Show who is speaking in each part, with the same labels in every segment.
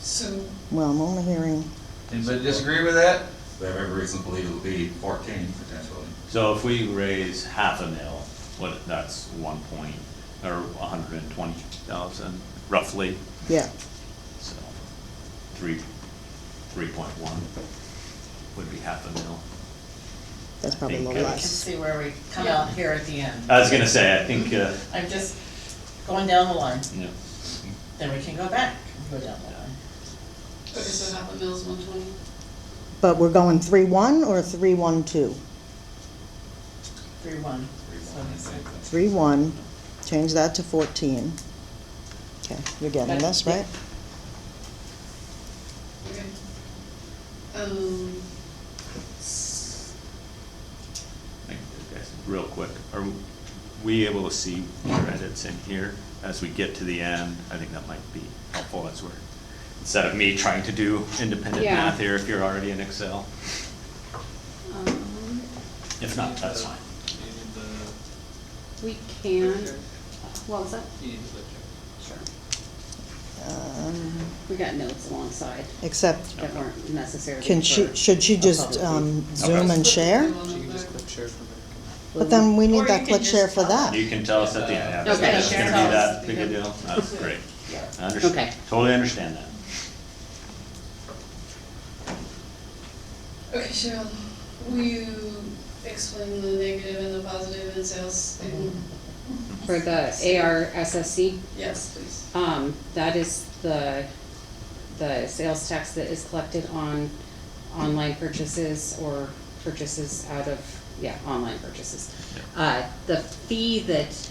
Speaker 1: So,
Speaker 2: Well, I'm only hearing,
Speaker 3: Anybody disagree with that?
Speaker 4: They have every reason to believe it'll be fourteen potentially.
Speaker 5: So if we raise half a mil, what, that's one point, or a hundred and twenty thousand roughly,
Speaker 2: yeah,
Speaker 5: so three, three point one would be half a mil.
Speaker 2: that's probably a
Speaker 5: Think,
Speaker 2: little
Speaker 5: uh,
Speaker 1: I can
Speaker 2: less.
Speaker 1: see where we come out here at the end.
Speaker 5: I was gonna say, I think, uh,
Speaker 1: I'm just going down the line,
Speaker 5: you know,
Speaker 1: then we can go back and go down the line.
Speaker 6: Okay, so half a mil is one twenty?
Speaker 2: But we're going three one or three one two?
Speaker 1: Three, one.
Speaker 4: Three,
Speaker 1: So
Speaker 4: one, I
Speaker 1: it's
Speaker 4: think
Speaker 1: like-
Speaker 4: that's-
Speaker 2: Three one, change that to fourteen. Okay, you're getting this, right?
Speaker 6: Okay. Um,
Speaker 5: I think, okay, real quick, are we able to see your edits in here as we get to the end? I think that might be helpful as we're, instead of me trying to do independent
Speaker 6: Yeah.
Speaker 5: math here if you're already in Excel.
Speaker 6: um,
Speaker 5: If not, that's fine.
Speaker 6: we can, what was that? Sure.
Speaker 2: Um,
Speaker 6: We got notes alongside
Speaker 2: Except,
Speaker 6: that weren't necessarily.
Speaker 2: can she,
Speaker 6: for-
Speaker 2: should she
Speaker 6: for
Speaker 2: just
Speaker 6: public
Speaker 2: um,
Speaker 5: Okay.
Speaker 2: zoom and share?
Speaker 7: She can just click share from there.
Speaker 2: But then we
Speaker 1: Or
Speaker 2: need
Speaker 1: you
Speaker 2: that
Speaker 1: can
Speaker 2: click share
Speaker 1: just
Speaker 2: for
Speaker 1: tell us.
Speaker 2: that.
Speaker 5: You can tell us at the end, yeah,
Speaker 6: Okay.
Speaker 5: it's gonna be
Speaker 1: Tell us.
Speaker 5: that big a deal, that's great. I
Speaker 6: Okay.
Speaker 5: understand, totally understand that.
Speaker 7: Okay, Cheryl, will you explain the negative and the positive in sales thing?
Speaker 1: Mm-hmm.
Speaker 6: For the ARSSC,
Speaker 7: Yes, please.
Speaker 6: um, that is the, the sales tax that is collected on online purchases or purchases out of, yeah, online purchases. Uh, the fee that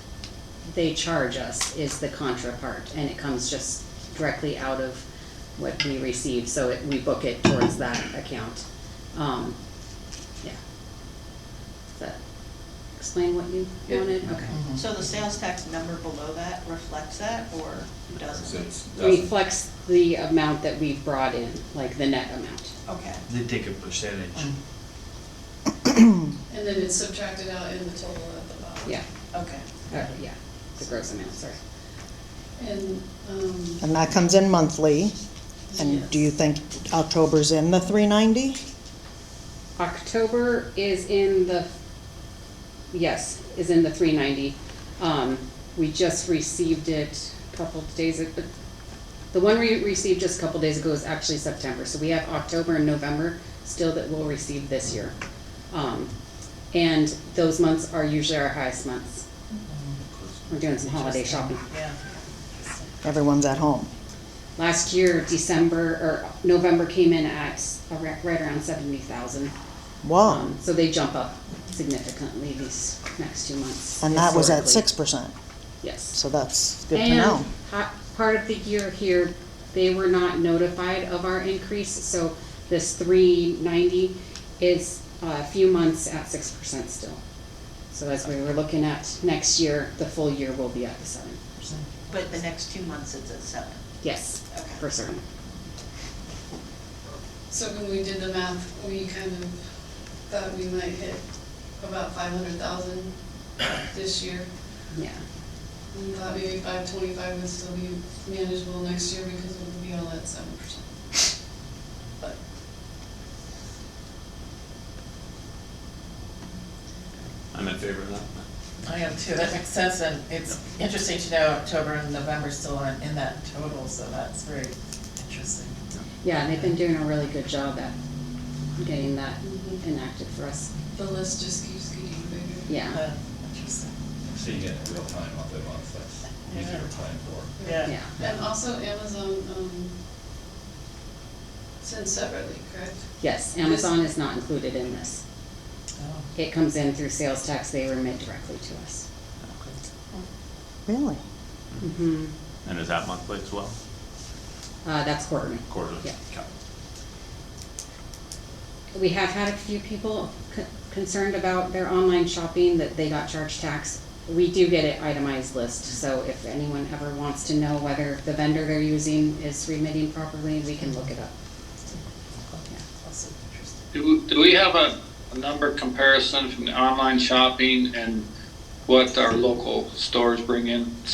Speaker 6: they charge us is the contra part, and it comes just directly out of what we receive, so it, we book it towards that account. Um, yeah. Does that explain what you
Speaker 7: Yeah.
Speaker 6: wanted? Okay.
Speaker 8: So the sales tax number below that reflects that or
Speaker 4: So
Speaker 8: doesn't?
Speaker 4: it's- doesn't-
Speaker 6: reflects the amount that we brought in, like the net amount.
Speaker 8: Okay.
Speaker 3: They take a percentage.
Speaker 7: And then it's subtracted out in the total at the bottom.
Speaker 6: Yeah,
Speaker 8: Okay.
Speaker 6: uh, yeah, the gross amount, sorry.
Speaker 7: And, um,
Speaker 2: And that comes in monthly. And do you think October's in the three ninety?
Speaker 6: October is in the, yes, is in the three ninety. Um, we just received it a couple of days, ag- the one we received just a couple days ago is actually September, so we have October and November still that we'll receive this year. Um, and those months are usually our highest months. We're doing some holiday shopping.
Speaker 1: Yeah.
Speaker 2: Everyone's at home.
Speaker 6: Last year, December, or November came in at s- a ra- right around seventy thousand.
Speaker 2: Wow.
Speaker 6: Um, So they jump up significantly these next two months.
Speaker 2: And that was at six
Speaker 6: historically.
Speaker 2: percent,
Speaker 6: Yes.
Speaker 2: so that's good to know.
Speaker 6: And ha- part of the year here, they were not notified of our increase, so this three ninety is a few months at six percent still. So as we were looking at next year, the full year will be at the seven percent.
Speaker 8: But the next two months it's at seven.
Speaker 6: Yes,
Speaker 8: Okay.
Speaker 6: for certain.
Speaker 7: so when we did the math, we kind of thought we might hit about five hundred thousand this year.
Speaker 6: Yeah,
Speaker 7: And thought maybe five twenty-five would still be manageable next year because it would be all at seven percent. But
Speaker 5: I'm in favor of that.
Speaker 1: I am too, that makes sense, and it's interesting to know October and November still aren't in that total, so that's very interesting.
Speaker 6: yeah, they've been doing a really good job at getting that
Speaker 7: Mhm.
Speaker 1: Mm-hmm.
Speaker 6: enacted for us.
Speaker 7: the list just keeps getting bigger.
Speaker 6: Yeah,
Speaker 1: Uh, Interesting.
Speaker 4: Seeing it in real time, month by month, that's easier to plan for.
Speaker 1: Yeah.
Speaker 6: yeah.
Speaker 7: And also Amazon, um, sent separately, correct?
Speaker 6: Yes, Amazon is not included in this.
Speaker 1: Oh.
Speaker 6: It comes in through sales tax, they remit directly to us.
Speaker 2: Really?
Speaker 6: Mm-hmm.
Speaker 5: And is that monthly as well,
Speaker 6: Uh, that's quarterly.
Speaker 5: quarterly?
Speaker 6: Yeah.
Speaker 5: Okay.
Speaker 6: We have had a few people c- concerned about their online shopping, that they got charged tax. We do get an itemized list, so if anyone ever wants to know whether the vendor they're using is remitting properly, we can look it up.
Speaker 1: Also interesting.
Speaker 9: Do, do we have a, a number comparison from the online shopping and what our local stores bring in